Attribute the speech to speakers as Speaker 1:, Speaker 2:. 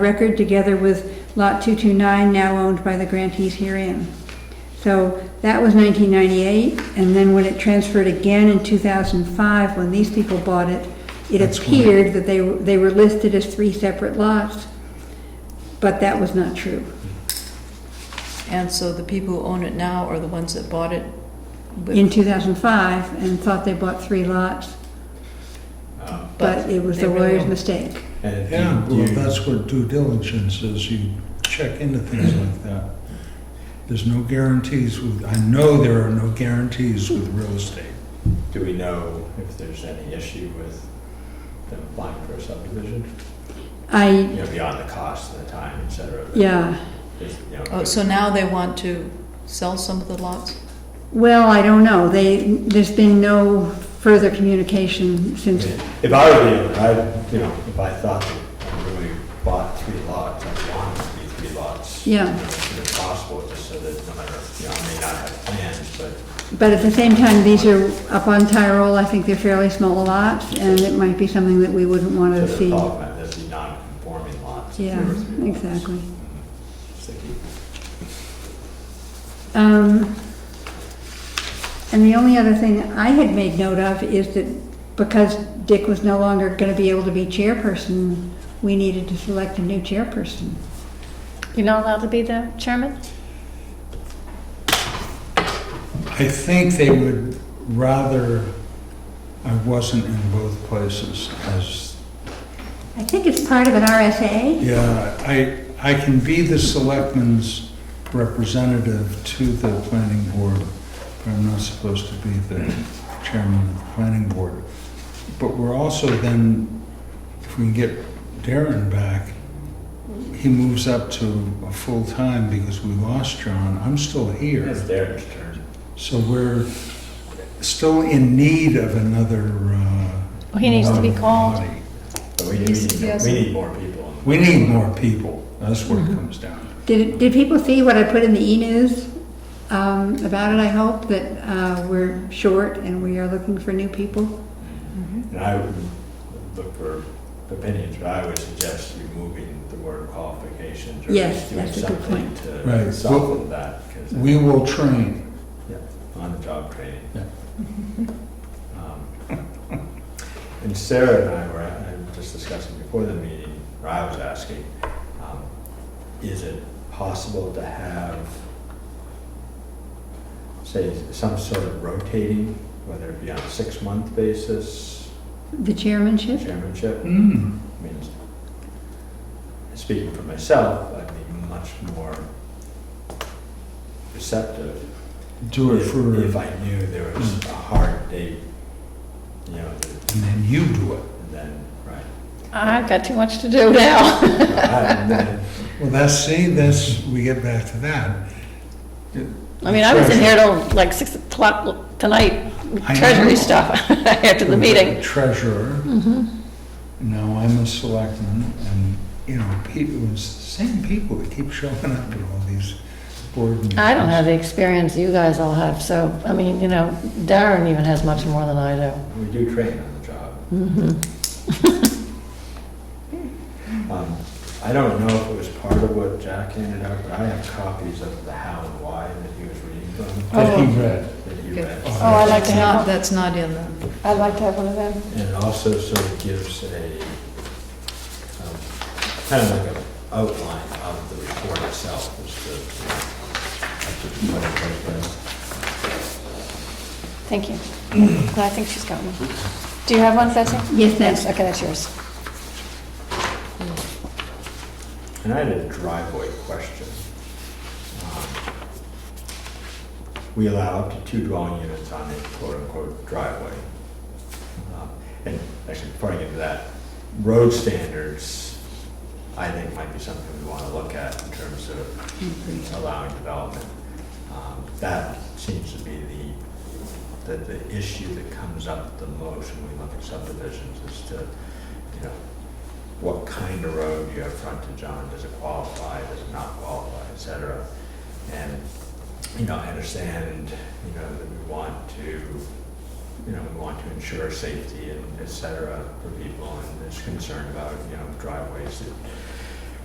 Speaker 1: record together with Lot 229 now owned by the grantees herein. So that was 1998, and then when it transferred again in 2005, when these people bought it, it appeared that they, were- they were listed as three separate lots, but that was not true.
Speaker 2: And so the people who own it now are the ones that bought it? but-
Speaker 1: In 2005, and thought they bought three lots, but it was
Speaker 2: they
Speaker 1: the
Speaker 2: really
Speaker 1: lawyer's
Speaker 2: don't.
Speaker 1: mistake.
Speaker 3: And do
Speaker 4: Yeah,
Speaker 3: you-
Speaker 4: well, that's what due diligence is, you check into things like that. There's no guarantees with, I know there are no guarantees with real estate.
Speaker 3: Do we know if there's any issue with them applying for a subdivision?
Speaker 1: I,
Speaker 3: You know, beyond the cost and the time, et cetera? that
Speaker 1: yeah.
Speaker 3: is, you know,
Speaker 2: Oh, so now they want to sell some of the lots?
Speaker 1: Well, I don't know. They, there's been no further communication since,
Speaker 3: If I were you, I, you know, if I thought that I really bought three lots, I wanted it to be three lots.
Speaker 1: Yeah.
Speaker 3: you know, As soon as possible, just so that no matter, you know, I may not have plans, but
Speaker 1: but at the same time, these are up on Tyrol. I think they're fairly small lots, and it might be something that we wouldn't want
Speaker 3: to
Speaker 1: to
Speaker 3: the
Speaker 1: see.
Speaker 3: top, man, there'd be non-conforming lots. two
Speaker 1: Yeah,
Speaker 3: or three lots.
Speaker 1: exactly.
Speaker 3: Sticky.
Speaker 1: Um, And the only other thing I had made note of is that because Dick was no longer going to be able to be chairperson, we needed to select a new chairperson.
Speaker 5: You're not allowed to be the chairman?
Speaker 4: I think they would rather I wasn't in both places as,
Speaker 1: I think it's part of an RSA.
Speaker 4: yeah, I, I can be the selectman's representative to the planning board, but I'm not supposed to be the chairman of the planning board. But we're also then, if we can get Darren back, he moves up to a full-time because we lost John. I'm still here.
Speaker 3: It's Darren's turn.
Speaker 4: So we're still in need of another. uh,
Speaker 5: Well, he needs to be called.
Speaker 4: body.
Speaker 3: But we need,
Speaker 2: He's-
Speaker 3: we
Speaker 2: he
Speaker 3: need-
Speaker 2: has-
Speaker 3: we need more people on the
Speaker 4: We need more people. That's what it
Speaker 5: Mm-hmm.
Speaker 4: comes down to.
Speaker 1: Did, did people see what I put in the e-news um, about it, I hope, that uh, we're short and we are looking for new people? Mm-hmm.
Speaker 3: And I would look for opinions, but I would suggest removing the word qualifications or
Speaker 1: Yes,
Speaker 3: doing
Speaker 1: that's a good
Speaker 3: something
Speaker 1: point.
Speaker 4: Right.
Speaker 3: to
Speaker 4: Well,
Speaker 3: soften that, because
Speaker 4: We will train.
Speaker 3: on-the-job training.
Speaker 4: Yeah.
Speaker 3: Um, And Sarah and I were, I was just discussing before the meeting, or I was asking, um, is it possible to have, say, some sort of rotating, whether it be on a six-month basis,
Speaker 1: The chairmanship?
Speaker 3: chairmanship?
Speaker 4: Mm.
Speaker 3: I mean, speaking for myself, I'd be much more receptive
Speaker 4: Do it
Speaker 3: if-
Speaker 4: for, Mm.
Speaker 3: if I knew there was a hard date, you know, that-
Speaker 4: and then you do it.
Speaker 3: and then, right.
Speaker 5: I've got too much to do now.
Speaker 3: And then,
Speaker 4: Well, that's, see, that's, we get back to that.
Speaker 5: I mean, I was in here till like 6 o'clock tonight, with
Speaker 4: I know.
Speaker 5: treasury stuff, after the meeting. Mm-hmm.
Speaker 4: Treasurer. Now I'm a selectman and, you know, people, it's the same people that keep showing up at all these board meetings.
Speaker 5: I don't have the experience you guys all have, so, I mean, you know, Darren even has much more than I do.
Speaker 3: we do train on the job.
Speaker 4: Mm-hmm.
Speaker 3: Um, I don't know if it was part of what Jack handed out, but I have copies of the how and why that he was reading from,
Speaker 4: That he read.
Speaker 3: that he
Speaker 2: Good.
Speaker 3: read.
Speaker 5: Oh, I like
Speaker 2: That's
Speaker 5: to have
Speaker 2: not-
Speaker 5: one.
Speaker 2: That's not in the,
Speaker 5: I'd like to have one of them.
Speaker 3: And it also sort of gives a, um, kind of like an outline of the report itself as to you know, as to what it was.
Speaker 5: Thank you. I think she's got one. Do you have one, Betsy?
Speaker 1: Yes, that's,
Speaker 5: Okay, that's yours.
Speaker 3: And I had a driveway question. Um, We allow up to two dwelling units on a quote-unquote driveway. Um, And actually, before I get to that, road standards, I think might be something we want to look at in terms of allowing development. Um, That seems to be the, the, the issue that comes up the most when we look at subdivisions is to, you know, what kind of road do you have frontage on, does it qualify, does it not qualify, et cetera. And, you know, I understand, you know, that we want to, you know, we want to ensure safety and et cetera for people, and there's concern about, you know, driveways that